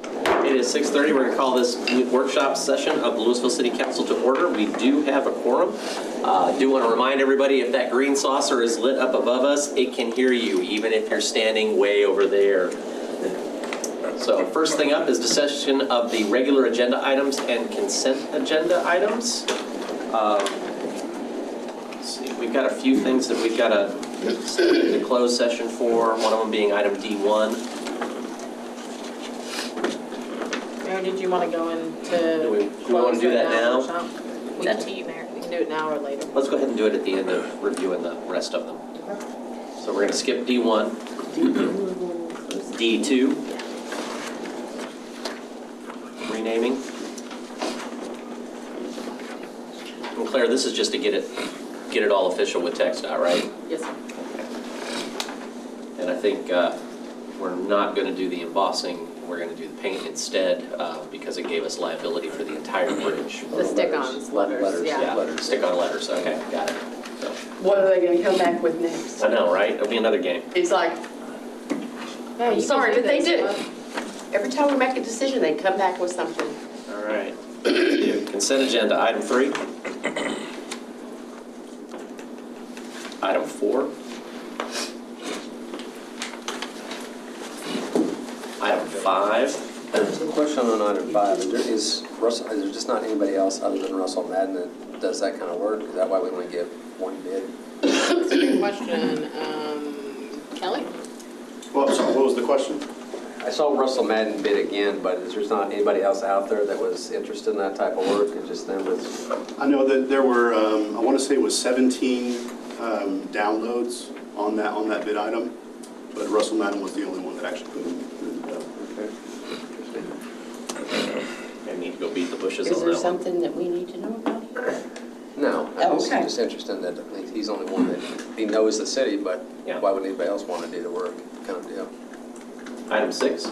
is 6:30. We're going to call this workshop session of the Louisville City Council to order. We do have a quorum. Uh, Do want to remind everybody, if that green saucer is lit up above us, it can hear you, even if you're standing way over there. So first thing up is discussion of the regular agenda items and consent agenda items. Um, let's see, We've got a few things that we've got a, a closed session for, one of them being item D1. Mayor, did you want to go into? Do we- do we close wanna do right that now? workshop? It's up to you, Mayor. We can do it now or later. Let's go ahead and do it at the end of reviewing the rest of them. So we're gonna skip D1, D2. Renaming. And Claire, this is just to get it, get it all official with text, all right? Yes, sir. And I think uh, we're not going to do the embossing, we're going to do the paint instead, uh, because it gave us liability for the entire bridge. The stick-ons, letters, yeah. Stick on letters, okay, got it. So, What are they gonna come back with next? I know, right? It'll be another game. It's like, Yeah, you can sorry, do but they this. do. Every time we make a decision, they come back with something. All right. Consent agenda, item three. Item four. Item five. Question on item five, is there- is Russell, is there just not anybody else other than Russell Madden that does that kind of work? Is that why we only give one bid? That's a good question. Um, Kelly? Well, I'm sorry, what was the question? I saw Russell Madden bid again, but is there's not anybody else out there that was interested in that type of work and just them was, I know that there were, um, I want to say it was 17 um, downloads on that, on that bid item, but Russell Madden was the only one that actually put it put it up. I need to go beat the bushes Is on there that one. something that we need to know about? no, I Oh, was okay. just interested in that, at least he's the only one that, he knows the city, but Yeah. why would anybody else want to do the work, kind of deal? Item six.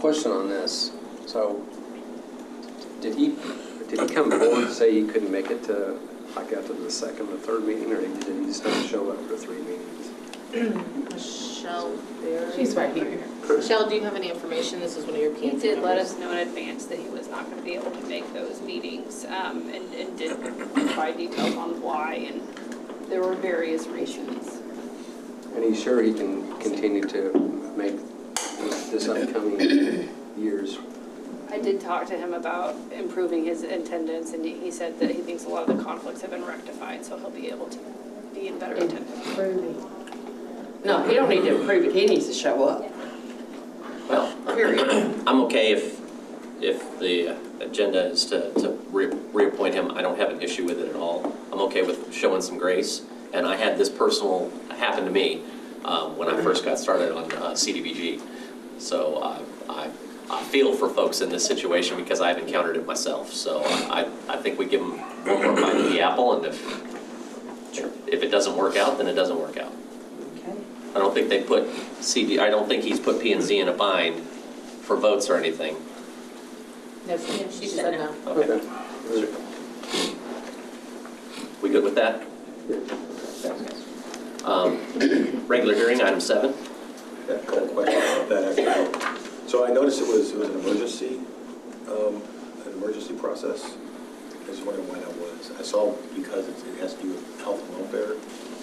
Question on this, so, did he, did he come forward and say he couldn't make it to, like, after the second or third meeting, or did he just not show up for three meetings? Michelle, She's right here. Michelle, do you have any information? This is one of your he cancer did let members. us know in advance that he was not going to be able to make those meetings um, and and did provide details on why, and there were various reasons. And he's sure he can continue to make this upcoming years? I did talk to him about improving his attendance, and he said that he thinks a lot of the conflicts have been rectified, so he'll be able to be in better attendance. No, he don't need to approve it, he needs to show up. Well, Period. I'm okay if, if the agenda is to, to re- reappoint him, I don't have an issue with it at all. I'm okay with showing some grace, and I had this personal happen to me um, when I first got started on uh, CDBG. So I, I, I feel for folks in this situation because I've encountered it myself. So I, I think we give them one more bite of the apple, and if, if it doesn't work out, then it doesn't work out. I don't think they put CD, I don't think he's put P and Z in a bind for votes or anything. No, she said no. Okay, we good with that? Um, Regular hearing, item seven. Yeah, couple questions about that actually. So I noticed it was, it was an emergency, um, an emergency process. I was wondering why that was. I saw because it's- it has to do with health and welfare.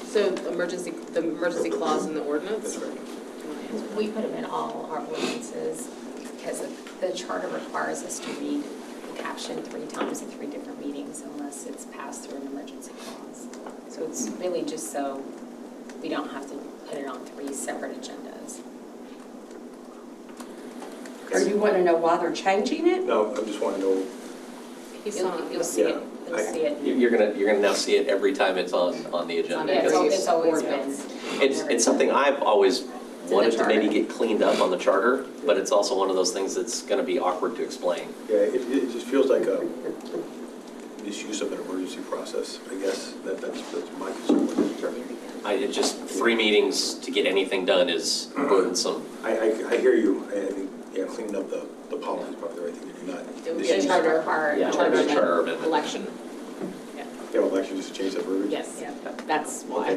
So emergency, the emergency clause in the ordinance? That's right. We put them in all our ordinances because the charter requires us to read the caption three times at three different meetings unless it's passed through an emergency clause. So it's really just so we don't have to put it on three separate agendas. Or you wanna know why they're changing it? No, I just want to know, He's You'll- on. You'll see it, you'll see You- it. You're gonna, you're gonna now see it every time it's on, on the agenda. Yeah, it's al- it's always been. Ordinance. It's, it's something I've always It's in the wanted to maybe charter. get cleaned up on the charter, but it's also one of those things that's gonna be awkward to explain. yeah, it, it just feels like a misuse of an emergency process, I guess. That, that's, that's my concern with it. I, it just, three meetings to get anything done is burdensome. I, I, I hear you. I I think, yeah, cleaning up the, the policy is probably the right thing to do, It not. would The be a misuse- charter require. Yeah, charter charter amendment. Election, Yeah, well, actually, just change that verbiage. yes, Yeah. that's why.